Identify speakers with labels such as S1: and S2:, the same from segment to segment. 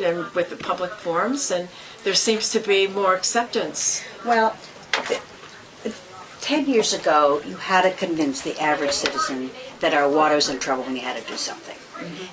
S1: and with the public forums, and there seems to be more acceptance.
S2: Well, th- ten years ago, you had to convince the average citizen that our water's in trouble and you had to do something.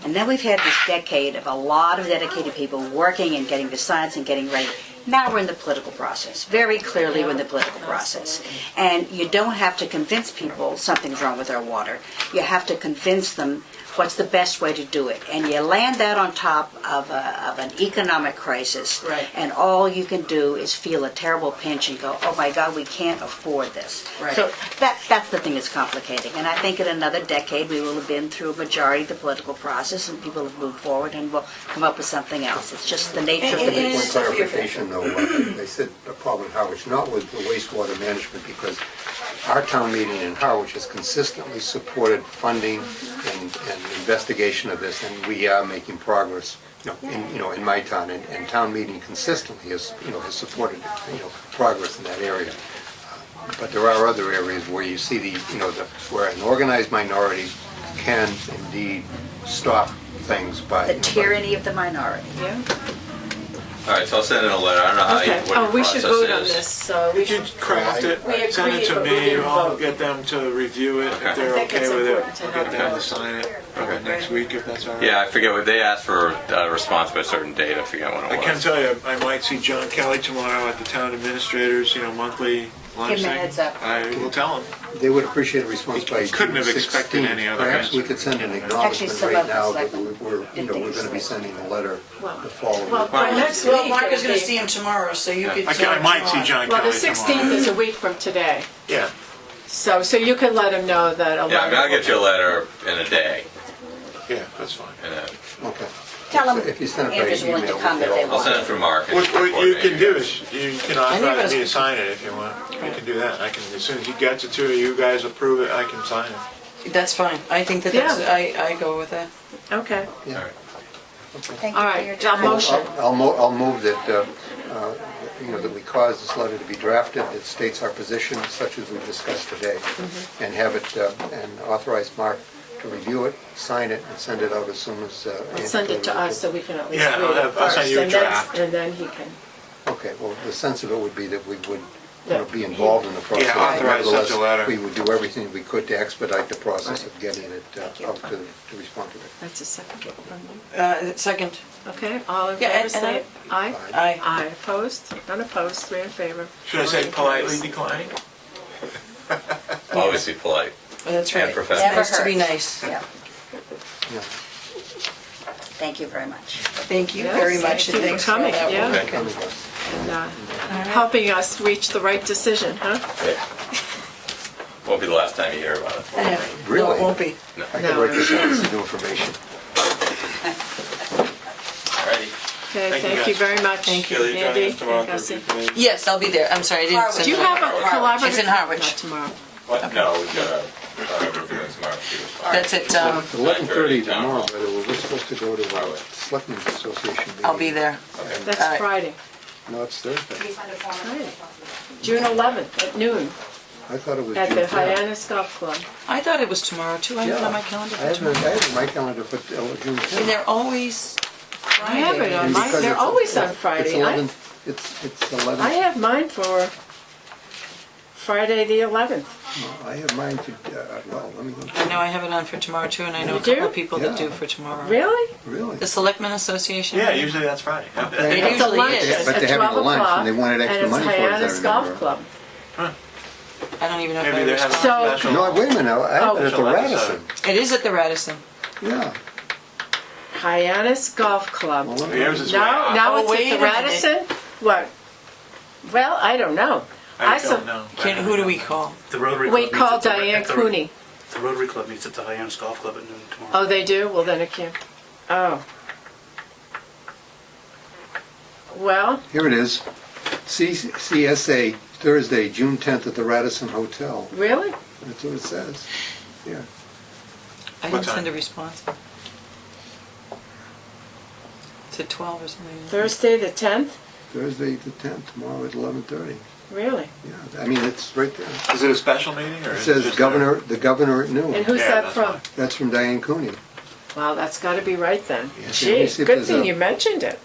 S2: And then we've had this decade of a lot of dedicated people working and getting the science and getting ready. Now we're in the political process. Very clearly, we're in the political process. And you don't have to convince people something's wrong with our water. You have to convince them what's the best way to do it. And you land that on top of, a, of an economic crisis.
S1: Right.
S2: And all you can do is feel a terrible pinch and go, oh my God, we can't afford this.
S1: Right.
S2: So that, that's the thing that's complicating. And I think in another decade, we will have been through a majority of the political process and people have moved forward and will come up with something else. It's just the nature of the
S3: And- and-
S2: beast.
S3: and-
S4: One clarification though, uh, they said the problem in Harwich, not with the wastewater management, because our town meeting in Harwich has consistently supported funding and, and investigation of this, and we are making progress, you know, in, you know, in my town, and, and town meeting consistently has, you know, has supported, you know, progress in that area. But there are other areas where you see the, you know, the, where an organized minority can indeed stop things by.
S2: The
S4: you know, by-
S2: tyranny of the minority.
S1: Yeah.
S3: All right, so I'll send in a letter. I don't know how
S1: Okay.
S3: you,
S1: Oh,
S3: what
S1: we
S3: your
S1: should
S3: process
S1: vote on
S3: is.
S1: this. So we
S5: If you
S1: should.
S5: craft
S1: We
S5: it, send
S1: agree,
S5: it to
S1: but we
S5: me,
S1: didn't
S5: I'll
S1: vote.
S5: get them to review it,
S3: Okay.
S5: if
S1: I
S5: they're
S1: think it's
S5: okay with it,
S1: important to
S5: I'll get
S1: have
S5: them
S1: that.
S5: to sign it, probably next week, if that's all right.
S3: Yeah, I forget what they asked for a response by a certain date. I forget when
S5: I
S3: it
S5: can
S3: was.
S5: tell you, I might see John Kelly tomorrow at the town administrators, you know, monthly lunch
S2: Give him a
S5: thing.
S2: heads up.
S5: I will tell him.
S4: They would appreciate a response by June
S5: Couldn't have expected
S4: 16th.
S5: any other
S4: Perhaps we
S5: answer.
S4: could send an
S2: Actually,
S4: acknowledgement
S2: some
S4: right
S2: of the
S4: now that
S2: selectmen
S4: we- we're, you know,
S2: didn't
S4: we're
S2: think
S4: gonna be
S2: so.
S4: sending a letter
S1: Well-
S4: the following.
S1: Well, by
S3: Well,
S1: next week.
S6: Well, Mark is
S1: it'll
S6: gonna
S1: be-
S6: see him tomorrow, so you could. uh,
S5: I can, I might see John
S1: Well, the
S5: Kelly tomorrow.
S1: 16th is a week from today.
S5: Yeah,
S1: So, so you can let him know that a
S3: Yeah, I mean, I'll
S1: letter
S3: get you a letter in a day.
S5: yeah, that's fine.
S3: And uh,
S4: Okay.
S2: Tell them
S4: If you send it by
S2: Andrew's willing to
S4: email,
S2: come if
S4: we'll
S2: they
S4: get
S3: I'll send it
S2: want.
S3: through Mark. and
S5: What, what you
S3: coordinate
S5: can do
S3: guys.
S5: is, you can
S6: think it
S5: authorize
S6: was-
S5: me to sign it if you want, you can do that, I can, as soon as he gets it to you, you guys approve it, I can sign it.
S6: That's fine, I think that that's,
S1: Yeah.
S6: I, I go with that.
S1: Okay.
S3: All right.
S2: Thank
S1: All
S2: you for
S1: right,
S2: your
S1: John
S2: time.
S1: Mo- Motion.
S4: I'll- I'll, mo- I'll move that, uh, uh, you know, that we cause this letter to be drafted that states our position such as we discussed today.
S1: Mm-hmm.
S4: And have it, uh, and authorize Mark to review it, sign it, and send it out as soon as. uh,
S1: Well, Send it to us so we can at least
S5: Yeah, I'll
S1: read it
S5: have- I'll
S1: first.
S5: send you a
S1: and then-
S5: draft.
S1: And then he can.
S4: Okay, well, the sense of it would be that we would, you know, be
S1: Yeah.
S4: involved in the process.
S5: Yeah, authorize such a
S4: Nevertheless,
S5: letter.
S4: We would do everything we could to expedite the process of getting it uh, out to, to respond to it.
S1: That's a second. from you.
S6: Uh, second,
S1: Okay, all in
S6: Yeah,
S1: favor,
S6: and-
S1: say aye.
S6: I,
S1: Aye, opposed, none opposed, three in favor.
S5: Should I say
S1: Motion
S5: politely
S1: carries.
S5: decline?
S3: Always be polite.
S6: oh, that's
S3: And
S6: right. It's
S3: professional.
S6: Nice to be
S2: Never
S6: nice.
S2: Yeah,
S4: Yeah.
S2: thank you very much.
S6: Thank you
S1: Yes,
S6: very much,
S1: thank you
S6: and
S1: for
S6: thanks for all
S1: coming,
S6: that
S1: yeah.
S6: work.
S3: Okay.
S4: Come with us.
S1: And, uh, Helping us reach the right decision, huh?
S3: Yeah. Won't be the last time you hear about it.
S6: Yeah. No,
S4: Really?
S6: it won't be.
S3: No.
S4: I could write this out as new information.
S3: All righty.
S1: Okay,
S5: Thank you,
S1: thank you
S5: guys.
S1: very much.
S6: Thank
S5: Kelly, join us
S1: Andy
S5: tomorrow
S1: and
S5: at
S1: Gussie.
S5: 3:00 p.m.
S6: Yes, I'll be there, I'm sorry, I didn't
S2: Harwich.
S6: send
S1: Do you
S6: it.
S1: have a collaborative?
S6: It's in Harwich.
S1: Not tomorrow.
S3: What? No, we've got a uh, review and some RFQ.
S6: That's it, um,
S4: Eleven thirty
S3: 9:30 town
S4: tomorrow,
S3: hall.
S4: by the way, we're supposed to go to our
S3: Highway.
S4: Selectmen's Association meeting.
S6: I'll be there. All
S1: That's
S6: right.
S1: Friday,
S4: No, it's Thursday.
S1: Friday. June 11th at noon
S4: I thought it was June
S1: at the
S4: 10th.
S1: Hyannis Golf Club.
S6: I thought it was tomorrow too, I have it on my calendar
S4: I
S6: for
S4: have it,
S6: tomorrow.
S4: I have it on my calendar for uh, June 10th.
S6: And they're always
S1: I have it
S6: Friday.
S1: on
S4: And
S1: my,
S4: because
S1: they're
S4: it's-
S1: always on
S4: it's
S1: Friday. I
S4: 11 It's, it's eleven.
S1: I have mine for Friday, the 11th.
S4: I have mine for, uh, well, let me look.
S6: I know I have it on for tomorrow too, and I know a
S1: You do?
S6: couple of people that
S4: Yeah.
S6: do for tomorrow.
S1: Really?
S4: Really?
S6: The Selectmen Association?
S5: Yeah, usually that's Friday.
S4: They
S6: It
S1: It's a
S6: usually
S1: lunch
S6: is.
S4: But
S1: at
S4: they're having a
S1: 12
S4: lunch, and
S1: o'clock,
S4: they wanted extra money for it, as I
S1: And it's Hyannis Golf
S4: remember.
S1: Club.
S6: I don't even know if I
S5: Maybe they're having
S6: was.
S5: a
S1: So-
S5: special.
S4: No, wait a minute, I have it at the
S5: Oh.
S4: Radisson,
S6: It is at the Radisson.
S4: yeah.
S1: Hyannis Golf Club.
S4: Well, let me-
S5: Yours is way
S1: Now,
S5: out.
S1: now
S6: Oh,
S1: it's
S6: wait a
S1: at the
S6: minute.
S1: Radisson? What? Well, I don't know.
S5: I
S1: saw-
S5: don't know.
S6: Can, who do we call?
S7: The Rotary
S1: We
S7: Club
S1: called
S7: meets at the-
S1: Diane
S7: at the-
S1: Cooney.
S7: The Rotary Club meets at the Hyannis Golf Club at noon tomorrow.
S1: Oh, they do? Well, then it can't. Oh. Well,
S4: Here it is, C- CSA, Thursday, June 10th at the Radisson Hotel,
S1: really?
S4: that's what it says, yeah.
S6: I
S5: What
S6: didn't send a
S5: time?
S6: response. It's at twelve or something.
S1: Thursday, the 10th?
S4: Thursday the 10th, tomorrow at 11:30,
S1: Really?
S4: yeah, I mean, it's right there.
S5: Is it a special meeting or?
S4: It
S5: is
S4: says
S5: just a-
S4: governor, the governor at
S1: And
S4: noon,
S1: who's
S5: Yeah,
S1: that
S5: that's
S1: from?
S5: fine.
S4: that's from Diane Cooney.
S1: Wow, that's got to be right then.
S4: Yeah, so let me
S1: Gee,
S4: see if
S1: good
S4: there's
S1: thing
S4: a-
S1: you mentioned it.